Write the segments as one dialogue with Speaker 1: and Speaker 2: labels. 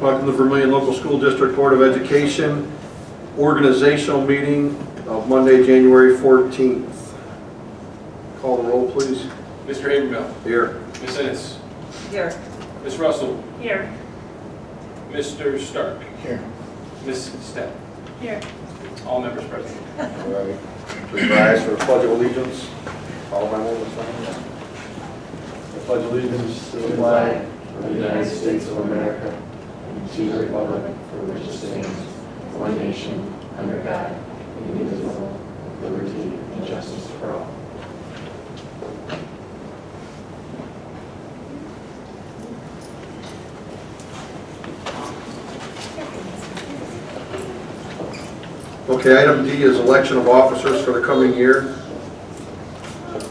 Speaker 1: Welcome to Vermillion Local School District Board of Education organizational meeting of Monday, January 14th. Call the roll, please.
Speaker 2: Mr. Habermill,
Speaker 1: Here.
Speaker 2: Miss Ennis,
Speaker 3: Here.
Speaker 2: Miss Russell,
Speaker 3: Here.
Speaker 2: Mr. Stark,
Speaker 4: Here.
Speaker 2: Miss Step,
Speaker 3: Here.
Speaker 2: all members present.
Speaker 1: All right. Please rise for the pledge of allegiance. Follow my one
Speaker 4: I pledge allegiance to the flag of the United States of America and to the republic for which it stands, one nation, under God, indivisible, with liberty and justice for all.
Speaker 1: Okay, item D is election of officers for the coming year.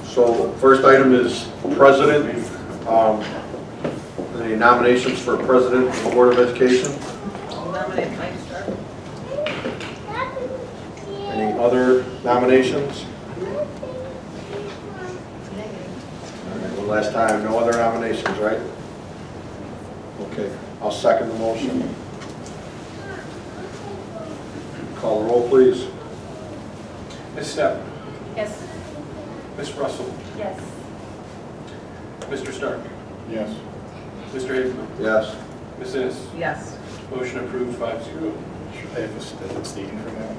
Speaker 1: So first item is president, um, any nominations for president of the Board of Education?
Speaker 3: I'll nominate Mike Stark.
Speaker 1: Any other nominations? All right, One last time, no other nominations, right? Okay, I'll second the motion. Call the roll, please.
Speaker 2: Miss Step,
Speaker 3: Yes.
Speaker 2: Miss Russell,
Speaker 3: Yes.
Speaker 2: Mr. Stark,
Speaker 4: Yes.
Speaker 2: Mr. Habermill,
Speaker 1: Yes.
Speaker 2: Miss Ennis,
Speaker 3: Yes.
Speaker 2: motion approved five zero.
Speaker 4: Should I have abstained from that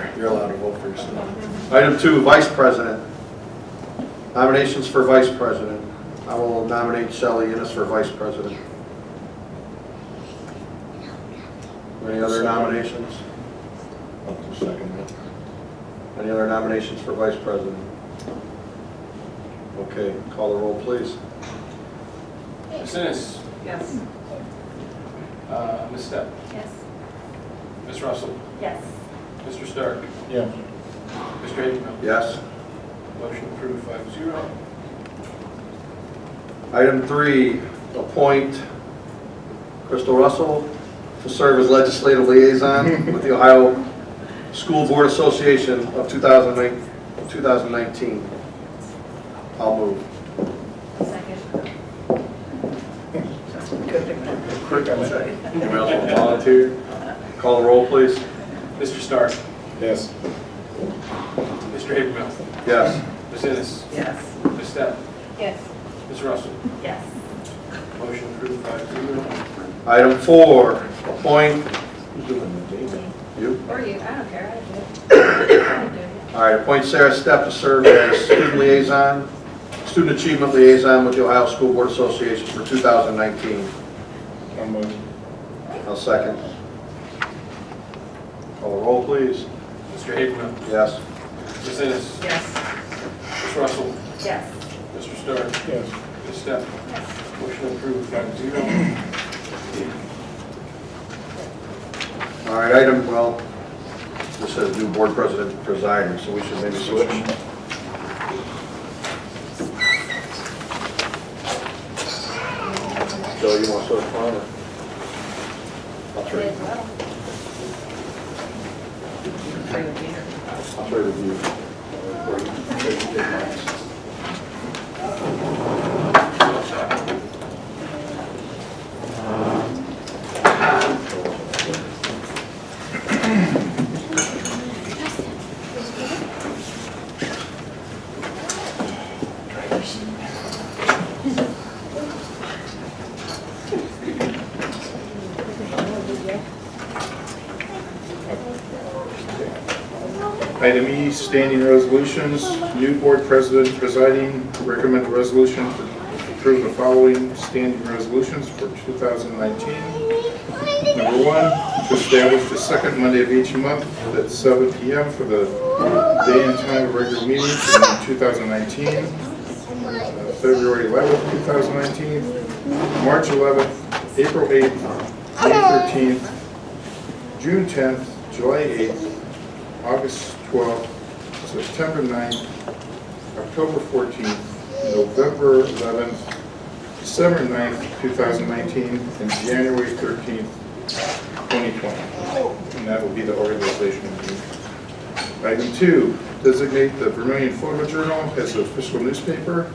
Speaker 4: one?
Speaker 1: You're allowed to vote for yourself. Item two, vice president. Nominations for vice president. I will nominate Shelley Innes for vice president. Any other nominations? Any other nominations for vice president? Okay, call the roll, please.
Speaker 2: Miss Ennis,
Speaker 3: Yes.
Speaker 2: uh, Miss Step,
Speaker 3: Yes.
Speaker 2: Miss Russell,
Speaker 3: Yes.
Speaker 2: Mr. Stark,
Speaker 4: Yeah.
Speaker 2: Mr. Habermill,
Speaker 1: Yes.
Speaker 2: motion approved five zero.
Speaker 1: Item three, appoint Crystal Russell to serve as legislative liaison with the Ohio School Board Association of 2009 2019. I'll move.
Speaker 3: Second.
Speaker 1: Quick, I'm second. Anyone else want to volunteer? Call the roll, please.
Speaker 2: Mr. Stark,
Speaker 4: Yes.
Speaker 2: Mr. Habermill,
Speaker 1: Yes.
Speaker 2: Miss Ennis,
Speaker 3: Yes.
Speaker 2: Miss Step,
Speaker 3: Yes.
Speaker 2: Miss Russell,
Speaker 3: Yes.
Speaker 2: motion approved five zero.
Speaker 1: Item four, appoint, you?
Speaker 3: Or you, I don't care, I do
Speaker 1: All right, appoint Sarah Stepp to serve as student liaison, student achievement liaison with the Ohio School Board Association for 2019.
Speaker 4: One motion.
Speaker 1: I'll second. Call the roll, please.
Speaker 2: Mr. Habermill,
Speaker 1: Yes.
Speaker 2: Miss Ennis,
Speaker 3: Yes.
Speaker 2: Miss Russell,
Speaker 3: Yes.
Speaker 2: Mr. Stark,
Speaker 4: Yes.
Speaker 2: Ms. Steph,
Speaker 3: Yes.
Speaker 2: motion approved, five zero.
Speaker 1: All right, item, well, this says new board president presiding, so we should maybe switch. Joe, you want to switch one? or- I'll trade,
Speaker 3: well.
Speaker 1: I'll trade with you. Or you can trade with mine.
Speaker 4: Item E, standing resolutions. New board president presiding, recommend a resolution to approve the following standing resolutions for 2019. Number one, to establish the second Monday of each month at 7 PM for the day and time of regular meetings in 2019, uh, February 11th, 2019, March 11th, April 8th, May 13th, June 10th, July 8th, August 12th, September 9th, October 14th, November 11th, December 9th, 2019, and January 13th, 2020. And that will be the organization meeting. Item two, designate the Vermillion Photo Journal as the official newspaper